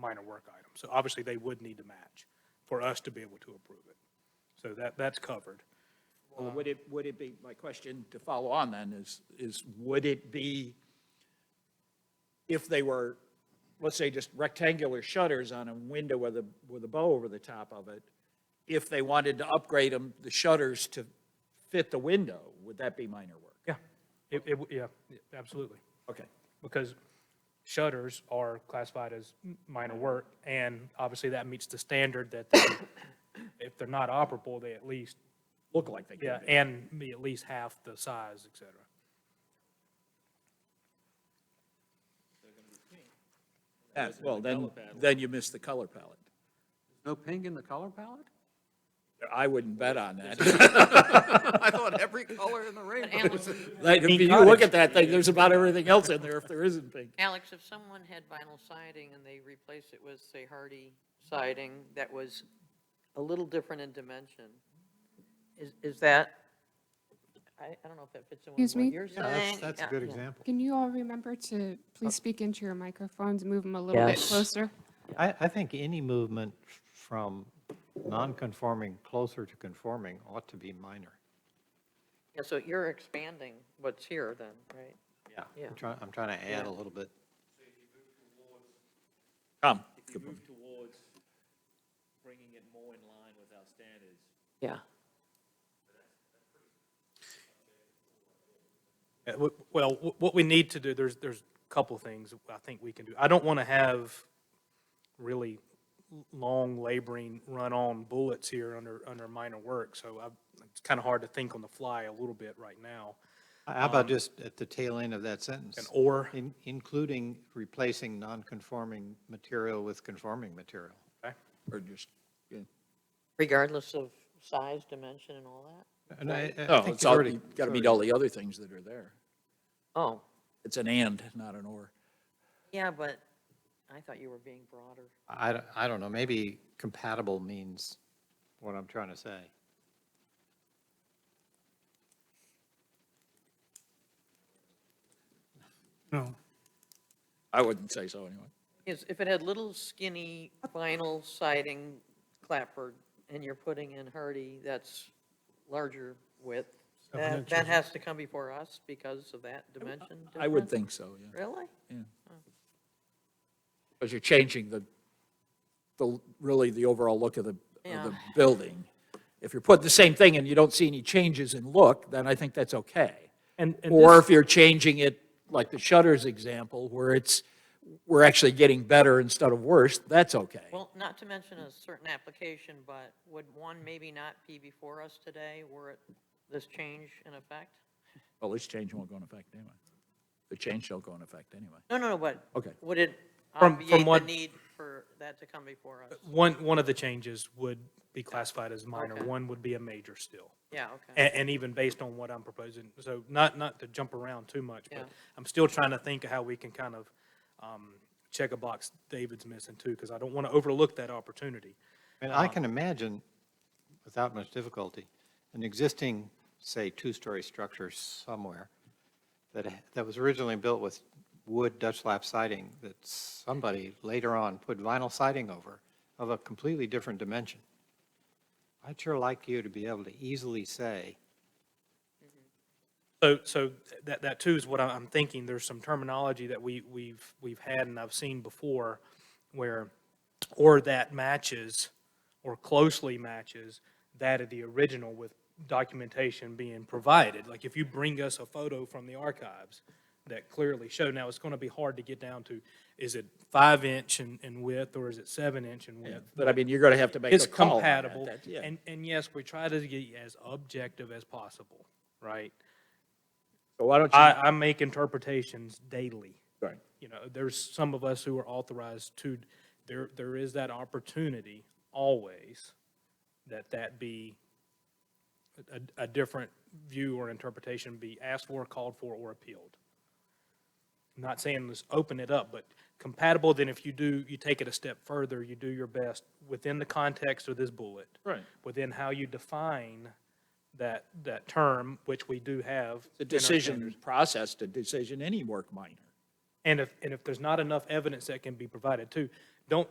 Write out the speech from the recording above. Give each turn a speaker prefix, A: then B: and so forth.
A: minor work item. So obviously, they would need to match for us to be able to approve it. So that, that's covered.
B: Well, would it, would it be, my question to follow on then is, is would it be, if they were, let's say, just rectangular shutters on a window with a, with a bow over the top of it, if they wanted to upgrade them, the shutters to fit the window, would that be minor work?
A: Yeah, it, it, w- yeah, yeah, absolutely.
B: Okay.
A: Because shutters are classified as m- minor work, and obviously that meets the standard that they- if they're not operable, they at least,
B: Look like they could
A: yeah,
B: be.
A: and be at least half the size, et cetera.
B: Yeah, Well, then, then you missed the color palette.
C: No pink in the color palette?
B: I wouldn't bet on that.
C: I thought every color in the
D: But
C: rainbow.
D: Alex,
B: Like, if you look at that thing, there's about everything else in there if there isn't pink.
D: Alex, if someone had vinyl siding and they replaced it with, say, hardy siding that was a little different in dimension, is, is that, I, I don't know if that fits in with
E: Excuse me?
D: what you're
F: Yeah, that's,
D: saying.
F: that's a
D: Yeah,
F: good
D: yeah.
F: example.
E: Can you all remember to please speak into your microphones, move them a little bit
D: Yes.
E: closer?
F: I, I think any movement from non-conforming closer to conforming ought to be minor.
D: Yeah, so you're expanding what's here then, right? Yeah.
F: I'm trying, I'm trying to add
D: Yeah.
F: a little bit.
B: Come.
G: if you move towards bringing it more in line with our standards,
D: Yeah.
A: Uh, w- Well, wh- what we need to do, there's, there's a couple things I think we can do. I don't want to have really l- long laboring run-on bullets here under, under minor work, so I, it's kind of hard to think on the fly a little bit right now.
F: How
D: Um,
F: about just at the tail end of that sentence?
A: An or,
F: In- Including replacing non-conforming material with conforming material.
A: okay?
B: Or just, yeah.
D: Regardless of size, dimension and all that?
F: And I- I
B: No,
F: think
B: Oh, it's
F: you
B: all,
F: already-
B: you got to meet all the other things that are there.
D: Oh,
B: It's an and, not an or.
D: yeah, but I thought you were being broader.
F: I, don't- I don't know, maybe compatible means what I'm trying to say.
H: No,
B: I wouldn't say so anyway.
D: Is, if it had little skinny vinyl siding clapboard and you're putting in hardy, that's larger width, that, that has to come before us because of that dimension
B: I would
D: difference?
B: think so, yeah.
D: Really?
B: Because you're changing the, the, really the overall look of the, of the
D: Yeah.
B: building. If you're putting the same thing and you don't see any changes in look, then I think that's okay.
A: And, and
B: Or
A: this-
B: if you're changing it, like the shutters example, where it's, we're actually getting better instead of worse, that's okay.
D: Well, not to mention a certain application, but would one maybe not be before us today were it this change in effect?
B: Well, this change won't go in effect anyway. The change don't go in effect anyway.
D: No, no, no, but.
B: Okay.
D: Would it
A: From- from
D: obviate the
A: what-
D: need for that to come before us?
A: one, one of the changes would be classified as minor,
D: Okay.
A: one would be a major still.
D: Yeah, okay.
A: And, and even based on what I'm proposing, so not, not to jump around too much,
D: Yeah.
A: but I'm still trying to think of how we can kind of um, check a box David's missing too, because I don't want to overlook that opportunity.
F: And I can imagine, without much difficulty, an existing, say, two-story structure somewhere that, that was originally built with wood Dutch lap siding that somebody later on put vinyl siding over of a completely different dimension. I'd sure like you to be able to easily say,
A: So, so that, that too is what I- I'm thinking, there's some terminology that we, we've, we've had and I've seen before where, or that matches, or closely matches that of the original with documentation being provided. Like if you bring us a photo from the archives that clearly show, now it's gonna be hard to get down to, is it five inch in, in width or is it seven inch in width?
B: But I mean, you're going to have to make
A: It's
B: a call on that.
A: compatible,
B: That- yeah.
A: and, and yes, we try to get as objective as possible, right?
B: So why don't you?
A: I, I make interpretations daily.
B: Right.
A: You know, there's some of us who are authorized to, there, there is that opportunity always that that be a, a different view or interpretation be asked for, called for, or appealed. Not saying let's open it up, but compatible, then if you do, you take it a step further, you do your best within the context of this bullet.
B: Right.
A: Within how you define that, that term, which we do have.
B: the
A: in our
B: decision process to decision any work minor.
A: And if, and if there's not enough evidence that can be provided too, don't,